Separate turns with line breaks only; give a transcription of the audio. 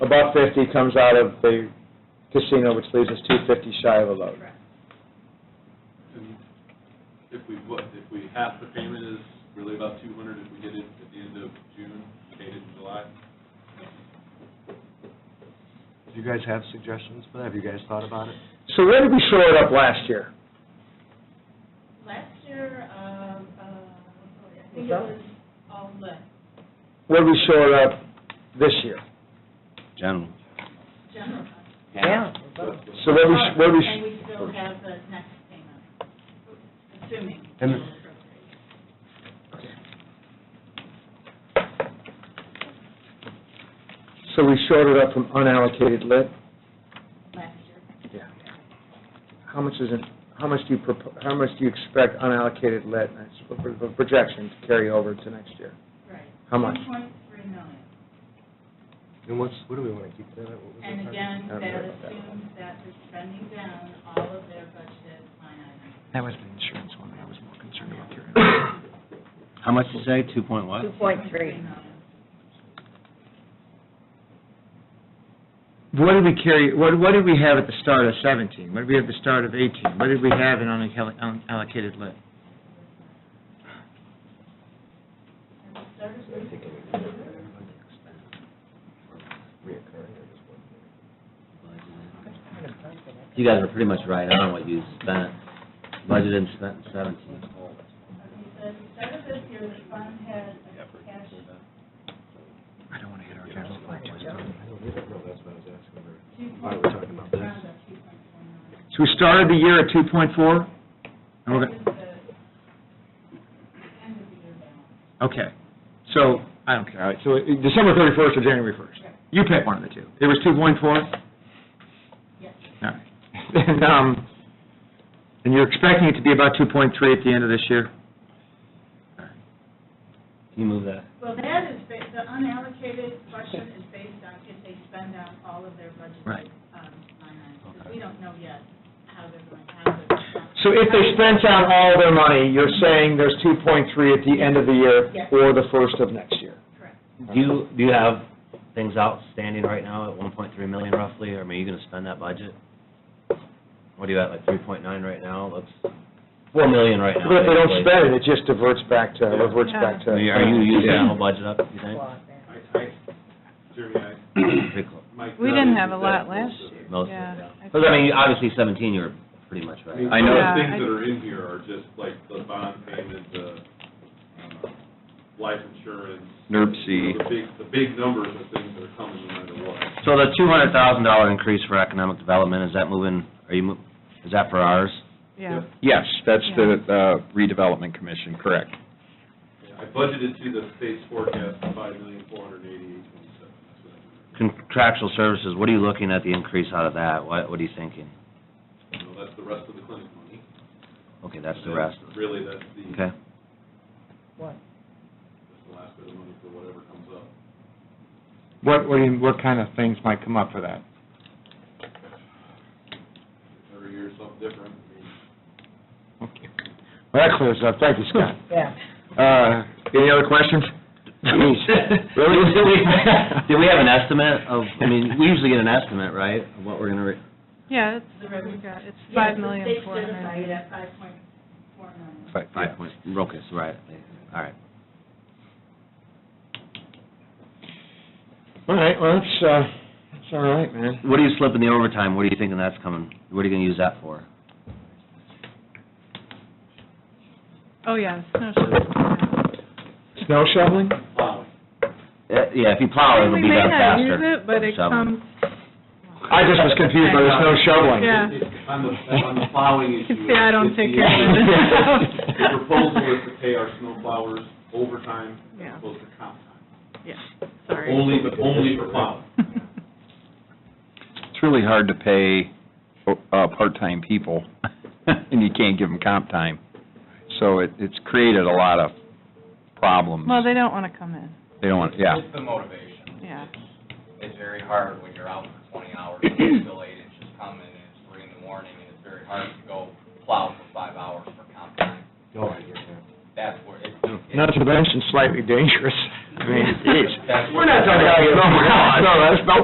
A buck fifty comes out of the casino, which leaves us two fifty shy of a load.
Correct.
And if we, what, if we, half the payment is really about two hundred, if we get it at the end of June, paid it in July?
Do you guys have suggestions for that? Have you guys thought about it?
So where did we shore it up last year?
Last year, um, uh, I
What's
think it was all lit,
Where did we shore it up this year?
General.
general.
Yeah.
So where we, sh- where we, sh-
And we still have the next payment, assuming.
And-
we'll appropriate.
so we shored it up from unallocated lit?
Last year,
Yeah. How much is it, how much do you, propo- how much do you expect unallocated lit, that's a pro- a projection to carry over to next year?
right.
How much?
Two point three million.
And what's, what do we want to keep that at? What was it?
And again,
I don't
that
know about that
assumes that they're spending down all of their budgeted line items.
That was the insurance one I was more concerned about carrying.
How much you say, two point what?
Two point three.
million.
What did we carry, what, what did we have at the start of seventeen? What did we have at the start of eighteen? What did we have in unalloc- unallocated lit?
And we started
So I think it
with-
would be a better funding expense for reoccurring or just one year.
You guys are pretty much right on what you spent, budgeted and spent in seventeen.
Okay, so at the start of this year, the fund had a cash,
I don't want to hit our capital budget.
I don't either. No, that's what I was asking. her.
two
Why are
point,
we talking about this?
around two point four million.
So we started the year at two point four? And we're
That
gonna,
was the end of the year balance.
okay, so, I don't care, all right, so uh, December thirty-first or January first?
Right.
You pick one of the two. It was two point four?
Yes,
All right. And, um, and you're expecting it to be about two point three at the end of this year?
Can you move that?
well, that is, ba- the unallocated question is based on if they spend out all of their budgeted
Right.
um, line items, because we don't know yet how they're going to have it.
So if they spent out all their money, you're saying there's two point three at the end of the year
Yes.
or the first of next year?
Correct.
Do you, do you have things outstanding right now at one point three million roughly, or are you gonna spend that budget? What are you at, like three point nine right now, looks, four million right now.
But if they don't spend it,
basically.
it just diverts back to, reverts back to.
Are you- are you using that whole budget up, you think?
I, I, Jeremy, I,
Pretty close.
Mike.
We didn't have a lot last year.
Most of it,
Yeah.
yeah. Because, I mean, obviously seventeen, you were pretty much
I
right.
mean,
I
some of the
know,
Yeah,
things
I-
that are in here are just like the bond payment, the um, life insurance.
NERC
you
C.
know, The big, the big numbers of things that are coming no matter what.
so the two hundred thousand dollar increase for economic development, is that moving, are you, mo- is that for ours?
Yeah.
Yes, that's the uh, redevelopment commission, correct.
I budgeted to the state's forecast of five million, four hundred and eighty-eight, twenty-seven. That's what I remember.
Contractual services, what are you looking at the increase out of that? What, what are you thinking?
So that's the rest of the clinic money.
Okay, that's the rest.
Really, that's the,
Okay.
that's the last bit of money for whatever comes up.
What, what, do you- what kind of things might come up for that?
Every year is something different. I mean,
Okay. Well, that clears it up. Thank you, Scott.
Yeah.
Uh, Any other questions? Really?
Did we did we have an estimate of, I mean, we usually get an estimate, right, of what we're gonna, re-
Yeah,
The
it's,
revenue.
we got, it's
Yes,
five
the
million
state
four hundred.
certified at five point four million.
five point, okay, so right, all right.
All right, well, that's, uh, that's all right, man.
What are you slipping the overtime, what are you thinking that's coming, what are you gonna use that for?
Oh, yeah, snow shovel.
Snow shoveling?
Plowing.
Uh, Yeah, if you plow, it'll
We
be
may
done
not use
faster.
it, but it
Shovel.
comes,
I just was confused by the snow shoveling.
yeah.
On the, on the plowing
You
issue.
can see I don't
it's
take
the-
care of it.
The proposal is to pay our snow plowers overtime
Yeah.
as opposed to comp time.
Yeah, sorry.
Only, but only for plowing.
It's really hard to pay uh, part-time people, and you can't give them comp time. So it, it's created a lot of problems.
Well, they don't want to come in,
They don't want, yeah.
It's the motivation.
yeah.
It's very hard when you're out for twenty hours and it's still late, it's just coming, and it's three in the morning, and it's very hard to go plow for five hours for comp time.
No, I get that.
That's where it,
Not to mention slightly dangerous. I mean, Oh, geez.
that's where.
We're not talking about, no, no, that's no